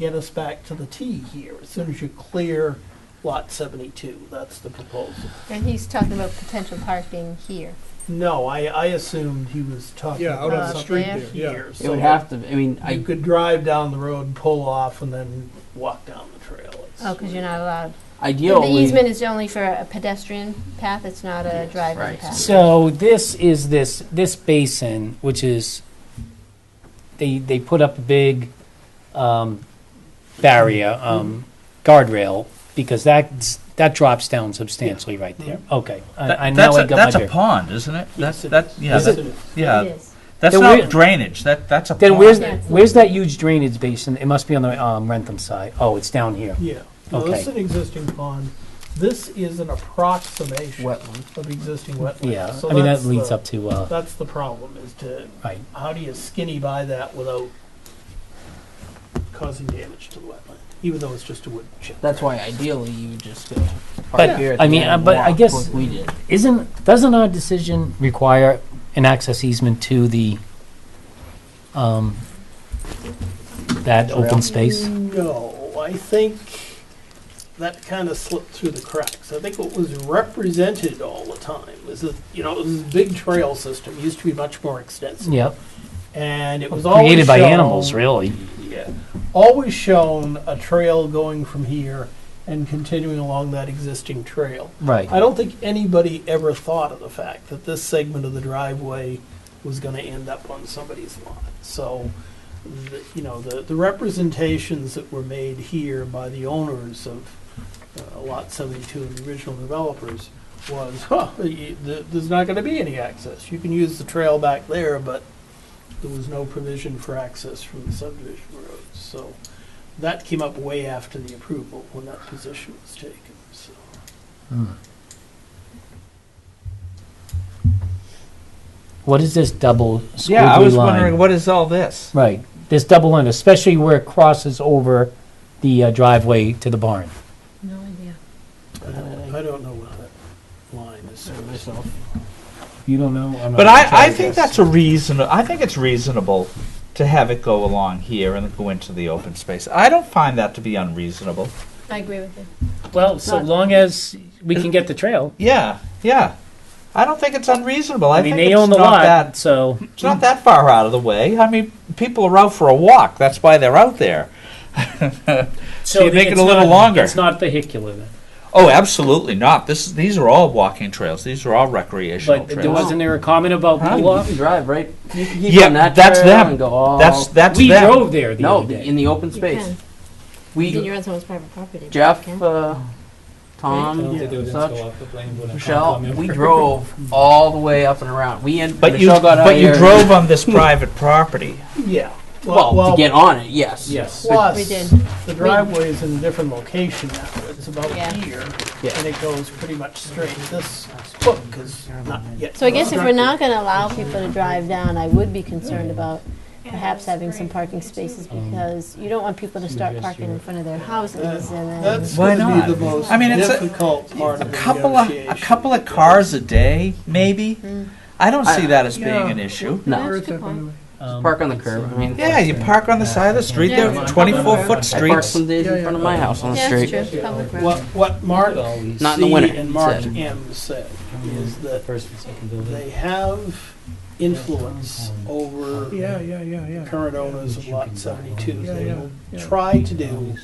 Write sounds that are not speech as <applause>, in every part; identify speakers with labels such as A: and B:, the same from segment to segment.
A: get us back to the T here, as soon as you clear lot seventy-two, that's the proposal.
B: And he's talking about potential parking here.
A: No, I, I assumed he was talking
C: Yeah, out
A: about
C: on the
B: Uh,
C: street
B: there.
C: there, yeah.
A: here,
D: It
A: so
D: would have to, I mean,
A: you
D: I,
A: could drive down the road and pull off and then walk down the trail. It's-
B: Oh, because you're not allowed. The
D: ideally,
B: easement is only for a pedestrian path, it's not a
A: Yes.
B: driveway
D: Right.
B: path.
E: So this is this this basin, which is they they put up a big um, barrier um, guardrail because that that drops down substantially right there. Okay,
F: Mm-hmm. That-
E: I, I now
F: that's
E: I
F: a,
E: got
F: that's
E: my
F: a
E: bear-
F: pond, isn't it? That's
A: Yes, it
F: that
A: is.
F: yeah
E: Is
F: that,
E: it-
F: yeah.
B: It is.
F: That's
E: Then
F: not
E: where-
F: drainage. That that's a
E: Then
F: pond.
E: where's
B: Yeah.
E: where's that huge drainage basin? It must be on the um, Rentham side. Oh, it's down here.
A: Yeah, no, this is
E: Okay.
A: an existing pond, this is an approximation
D: wetland.
A: of existing wetlands.
E: Yeah,
A: So
E: I mean that
A: that's
E: leads
A: the-
E: up to uh,
A: That's the problem, is to
E: right.
A: how do you skinny by that without causing damage to the wetland, even though it's just a wood chip?
D: That's why ideally you would just go
E: But,
D: park here at
E: I
D: the
E: mean,
D: end
E: uh,
D: and
E: but I
D: walk
E: guess-
D: like we did.
E: Isn't, doesn't our decision require an access easement to the, um, that open space?
A: No, I think that kind of slipped through the cracks. I think what was represented all the time was that, you know, it was a big trail system, used to be much more extensive.
E: Yep,
A: And it was Mm-hmm. always
E: created by
A: shown-
E: animals, really.
A: Yeah, always shown a trail going from here and continuing along that existing trail.
E: Right.
A: I don't think anybody ever thought of the fact that this segment of the driveway was going to end up on somebody's lot. So, the, you know, the, the representations that were made here by the owners of uh, Lot 72 and the original developers was, huh, y- th- there's not going to be any access. You can use the trail back there, but there was no provision for access from the subdivision road. So that came up way after the approval when that position was taken, so.
E: Hmm. What is this double
F: yeah, I
E: squiggly
F: was wondering
E: line?
F: what is all this?
E: Right, this double line, especially where it crosses over the uh, driveway to the barn.
B: No idea.
A: I don't- Uh, I don't know what that line is. Myself.
E: You don't know? I'm not
F: But
E: sure,
F: I, I think
E: guess.
F: that's a reason. I think it's reasonable to have it go along here and go into the open space. I don't find that to be unreasonable.
B: I agree with you.
E: Well, so long as we can get the trail.
F: Yeah, yeah. I don't think it's unreasonable. I,
E: I mean,
F: think
E: they
F: it's
E: own the
F: not
E: lot,
F: That,
E: so.
F: it's not that far out of the way. I mean, people are out for a walk. That's why they're out there. So you
E: then
F: make it
E: it's
F: a little
E: not-
F: longer.
E: It's not vehicular then.
F: Oh, absolutely not. This these are all walking trails. These are all recreational
E: But
F: trails.
E: there wasn't there a comment about
F: Huh?
E: pull
D: You
E: off?
D: can drive right, you can keep
F: Yeah,
D: on that
F: that's
D: trail
F: them.
D: and go all.
F: that's that's
E: We
F: them.
E: drove there the
D: No,
E: other day.
D: in the open
B: You
D: space.
B: can. Then
D: We,
B: you're on someone's private property. but you
D: Jeff,
B: can.
D: uh, Tom, um, such, Michelle,
E: Michelle, <laughs>
D: we drove all the way up and around. We and
F: But you
D: Michelle got out
F: but you
D: here-
F: drove <laughs> on this private property.
A: Yeah.
D: Well, to get on it, yes.
E: Yes.
A: Plus,
B: We did.
A: the driveway is in a different location now. It's about
B: Yeah.
A: here,
D: Yeah.
A: and it goes pretty much straight. This hook is not yet.
B: So I guess if we're not going to allow people to drive down, I would be concerned about perhaps having some parking spaces because you don't want people to start parking in front of their houses and then.
A: That's
F: Why
A: gonna be
F: not?
A: the most
F: I mean, it's a-
A: difficult part
F: A
A: of the
F: couple of a
A: negotiation.
F: couple of cars a day, maybe.
B: Hmm.
F: I don't see
D: I-
F: that as being
C: Yeah.
F: an issue.
D: No.
B: That's a good point.
E: Um,
D: Park on the curb. I mean,
F: Yeah, you park on the side of the street. There
B: Yeah.
F: are 24 foot
D: I park
F: streets.
D: some days in front of my house on the
B: Yeah,
D: street.
B: that's true, public road.
A: What what Mark
D: Not in the
A: C
D: winter,
A: and
D: he
A: Mark
D: said.
A: M said is that
E: First and second
A: they have influence over
C: Yeah, yeah, yeah, yeah.
A: current owners of Lot 72.
C: Yeah,
A: They
C: yeah,
A: will
C: yeah.
A: try to do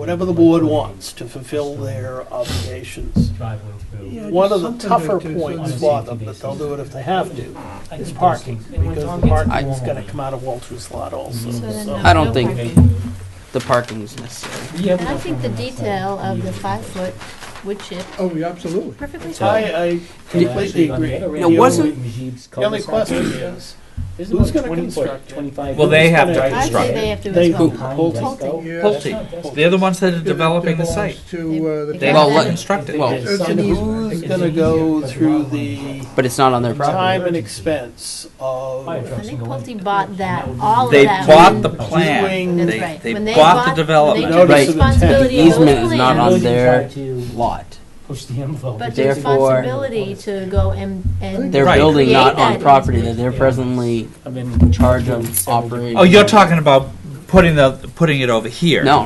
A: whatever the board wants to fulfill their obligations.
C: Yeah,
A: One of the
C: something
A: tougher
C: like this,
A: points
C: it's-
A: for them, that they'll do it if they have to, is parking, because the parking's gonna come out of Walter's lot also,
B: So then
A: so.
B: no-
D: I don't
B: no
D: think-
B: parking.
D: The parking's necessary.
B: And I think the detail of the five-foot wood chip
C: Oh, yeah, absolutely.
B: perfectly fine.
A: I, I completely agree.
D: It wasn't-
A: The only question is, who's gonna construct it?
F: Well, they have to
B: I say
F: construct
B: they have to
A: They
B: as well.
A: who? Pulte.
C: Yeah.
F: Pulte. They're the ones that are developing the site.
C: To, uh, the.
B: They-
F: They
D: Well,
F: have to
D: let-
F: construct it.
D: well-
C: It's
A: And
C: an easement.
A: who's gonna go through the
D: But it's not on their property.
A: time and expense of
B: I think Pulte bought that, all of
F: They
B: that.
F: bought
B: when-
F: the plan.
A: That's
F: They,
B: right. When
F: they
B: they
F: bought the
B: bought- They
F: development.
B: took
A: Notice of intent.
B: responsibility
D: The
B: of those
D: easement is not on
B: plans,
D: their lot.
E: Push the envelope.
B: but the
D: Therefore-
B: responsibility to go and, and.
D: They're
F: Right.
D: building not
B: Create
D: on
B: that
D: property that they're
E: Yeah.
D: presently
E: I've been
D: in charge of operating.
F: Oh, you're talking about putting the, putting it over here?
D: No,